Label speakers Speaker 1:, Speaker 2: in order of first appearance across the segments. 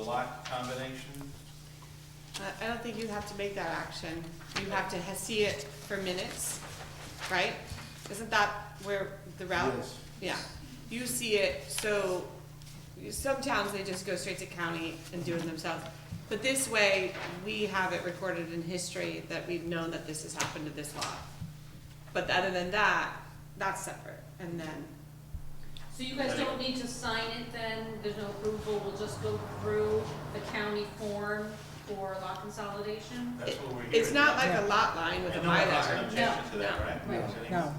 Speaker 1: lot combination?
Speaker 2: I- I don't think you have to make that action. You have to ha- see it for minutes, right? Isn't that where the route?
Speaker 3: Yes.
Speaker 2: Yeah, you see it, so you- some towns, they just go straight to county and do it themselves. But this way, we have it recorded in history that we've known that this has happened to this lot. But other than that, that's separate, and then,
Speaker 4: So you guys don't need to sign it then, there's no approval, we'll just go through the county form for lot consolidation?
Speaker 1: That's what we're hearing.
Speaker 2: it's not like a lot line with a
Speaker 1: And no one has an
Speaker 2: Mylar.
Speaker 1: objection to that,
Speaker 4: No,
Speaker 1: right?
Speaker 4: no,
Speaker 1: Is any-
Speaker 5: No,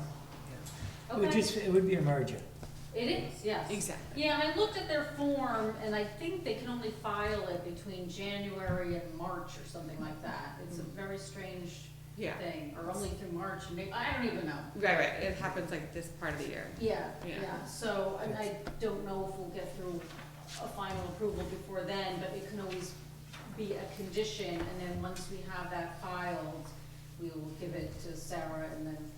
Speaker 5: it would
Speaker 4: Okay,
Speaker 5: just, it would be a merger.
Speaker 4: it is, yes.
Speaker 2: Exactly.
Speaker 4: Yeah, and I looked at their form, and I think they can only file it between January and March or something like that. It's
Speaker 5: Mm-hmm.
Speaker 4: a very strange
Speaker 2: Yeah,
Speaker 4: thing, or only through March, and maybe, I don't even know.
Speaker 2: right, right, it happens like this part of the year.
Speaker 4: Yeah,
Speaker 2: Yeah.
Speaker 4: yeah, so I, I don't know if we'll get through a final approval before then, but it can always be a condition, and then once we have that filed, we will give it to Sarah, and then,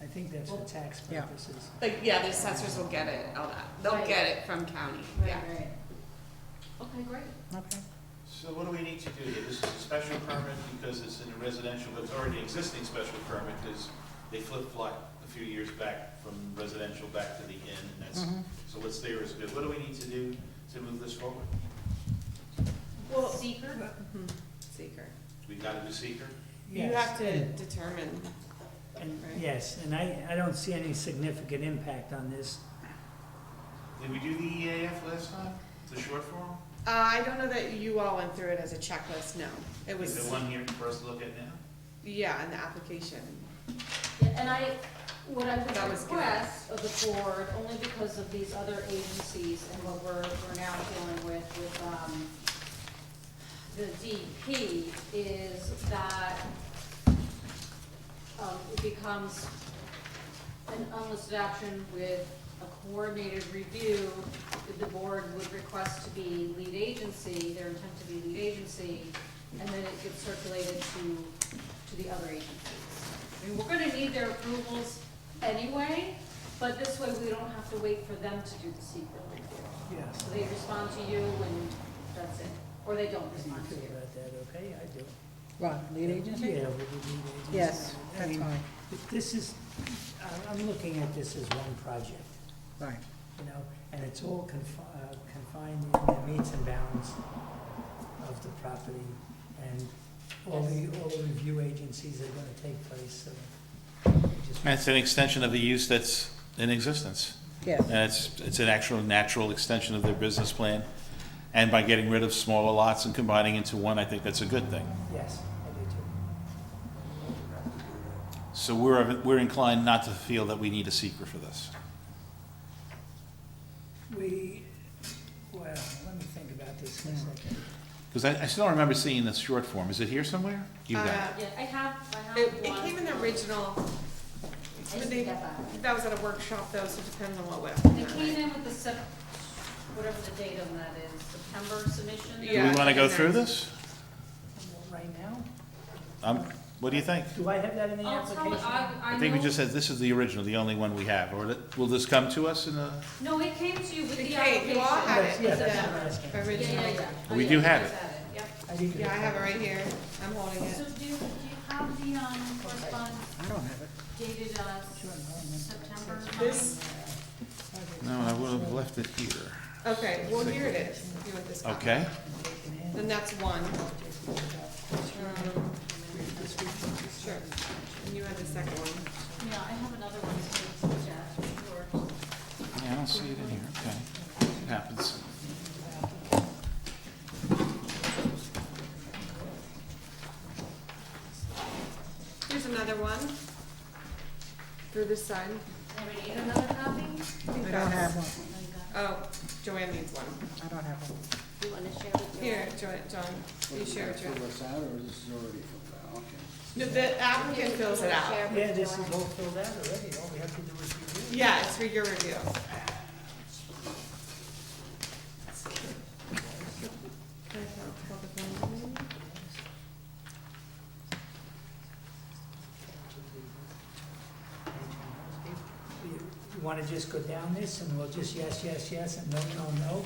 Speaker 5: I think that's for tax
Speaker 6: Yeah.
Speaker 5: purposes.
Speaker 2: Like, yeah, the assessors will get it, all that, they'll
Speaker 4: Right.
Speaker 2: get it from county,
Speaker 4: right,
Speaker 2: yeah.
Speaker 4: right. Okay, great.
Speaker 6: Okay.
Speaker 1: So what do we need to do here? This is a special permit because it's in a residential, but it's already an existing special permit because they flip-flop a few years back from residential back to the inn, and that's, so what's there is good. What do we need to do to move this forward?
Speaker 2: Well-
Speaker 4: Seeker?
Speaker 2: Mhm. Seeker.
Speaker 1: We gotta do seeker?
Speaker 2: You
Speaker 5: Yes,
Speaker 2: have to
Speaker 1: Hmm.
Speaker 5: and-
Speaker 2: determine,
Speaker 5: and-
Speaker 2: right?
Speaker 5: Yes, and I, I don't see any significant impact on this.
Speaker 1: Did we do the EAF last time, the short form?
Speaker 2: Uh, I don't know that you all went through it as a checklist, no. It
Speaker 1: Is there
Speaker 2: was,
Speaker 1: one here for us to look at now?
Speaker 2: yeah, in the application.
Speaker 4: Yeah, And I, what I
Speaker 2: That
Speaker 4: would
Speaker 2: was good.
Speaker 4: request of the board, only because of these other agencies and what we're, we're now dealing with, with, um, the DP is that, um, it becomes an unlisted action with a coordinated review that the board would request to be lead agency, their intent to be lead agency, and then it gets circulated to, to the other agencies. I mean, we're gonna need their approvals anyway, but this way we don't have to wait for them to do the secret review.
Speaker 5: Yes.
Speaker 4: So they respond to you and that's it, or they don't
Speaker 5: You
Speaker 4: respond to
Speaker 5: feel
Speaker 4: you.
Speaker 5: about that, okay? I do.
Speaker 6: What, lead agency?
Speaker 5: Yeah, we would need agency.
Speaker 6: Yes,
Speaker 5: I
Speaker 6: that's
Speaker 5: mean,
Speaker 6: fine,
Speaker 5: if This is, I- I'm looking at this as one project,
Speaker 6: right.
Speaker 5: you know, and it's all confi- uh, confined in the meets and bounds of the property. And all the, all the review agencies are gonna take place, so. we just-
Speaker 1: It's an extension of the use that's in existence.
Speaker 6: Yes,
Speaker 1: And it's, it's an actual natural extension of their business plan. And by getting rid of smaller lots and combining into one, I think that's a good thing.
Speaker 5: Yes, I do too.
Speaker 1: So we're, we're inclined not to feel that we need a seeker for this.
Speaker 5: We, well, let me think about this for a second.
Speaker 1: Because I, I still remember seeing this short form. Is it here somewhere? You got it.
Speaker 2: Uh,
Speaker 4: Yeah, I have, I
Speaker 2: It,
Speaker 4: have one.
Speaker 2: it came in the original,
Speaker 4: I just
Speaker 2: but they,
Speaker 4: need that back.
Speaker 2: that was at a workshop though, so it depends on what went.
Speaker 4: They came in with the Sep, whatever the date on that is, September submission?
Speaker 1: Do
Speaker 2: Yeah,
Speaker 1: we want to go
Speaker 2: and
Speaker 1: through
Speaker 2: then-
Speaker 1: this?
Speaker 5: Right now?
Speaker 1: Um, what do you think?
Speaker 5: Do I have that in the
Speaker 4: I'll Oh, tell,
Speaker 5: application?
Speaker 4: I, I
Speaker 1: I think we
Speaker 4: know,
Speaker 1: just said this is the original, the only one we have. Or that- will this come to us in a,
Speaker 4: no, it came to you with
Speaker 2: It
Speaker 4: the
Speaker 2: came-
Speaker 4: application.
Speaker 2: you all had it,
Speaker 5: Yeah,
Speaker 2: with
Speaker 5: that's what I'm
Speaker 2: the
Speaker 5: asking.
Speaker 4: Yeah,
Speaker 2: original.
Speaker 4: yeah, yeah. Oh,
Speaker 1: We
Speaker 4: yeah,
Speaker 1: do
Speaker 4: you
Speaker 1: have
Speaker 4: guys
Speaker 1: it.
Speaker 4: had yep.
Speaker 5: I think
Speaker 2: Yeah, I have it right here, I'm holding
Speaker 4: So
Speaker 2: it.
Speaker 4: do you, do you have the, um, correspondence
Speaker 6: I don't have it.
Speaker 4: dated, uh, September
Speaker 2: This-
Speaker 1: no, I would have left it here.
Speaker 2: Okay, well, here it is, if you want this copy.
Speaker 1: Okay?
Speaker 2: Then that's one. Um, Sure, and you had the second one.
Speaker 4: Yeah, I have another one, so it's, yeah, sure.
Speaker 1: Yeah, I don't see it in here. Okay. It happens.
Speaker 2: Here's another one. Through this side.
Speaker 4: Do you need another copy?
Speaker 2: I think
Speaker 6: I don't
Speaker 2: that's-
Speaker 6: have one,
Speaker 2: Oh, Joanne needs one.
Speaker 6: I don't have one.
Speaker 4: Do you wanna share with me?
Speaker 2: Here, Joanne, John, you share it, Joanne.
Speaker 3: Fill this out, or is this already filled out? Okay.
Speaker 2: No, The applicant fills it out.
Speaker 5: Yeah, this is all filled out already, all we have to do is review.
Speaker 2: Yeah, it's for your review.
Speaker 5: You wanna just go down this, and we'll just yes, yes, yes, and no, no, no,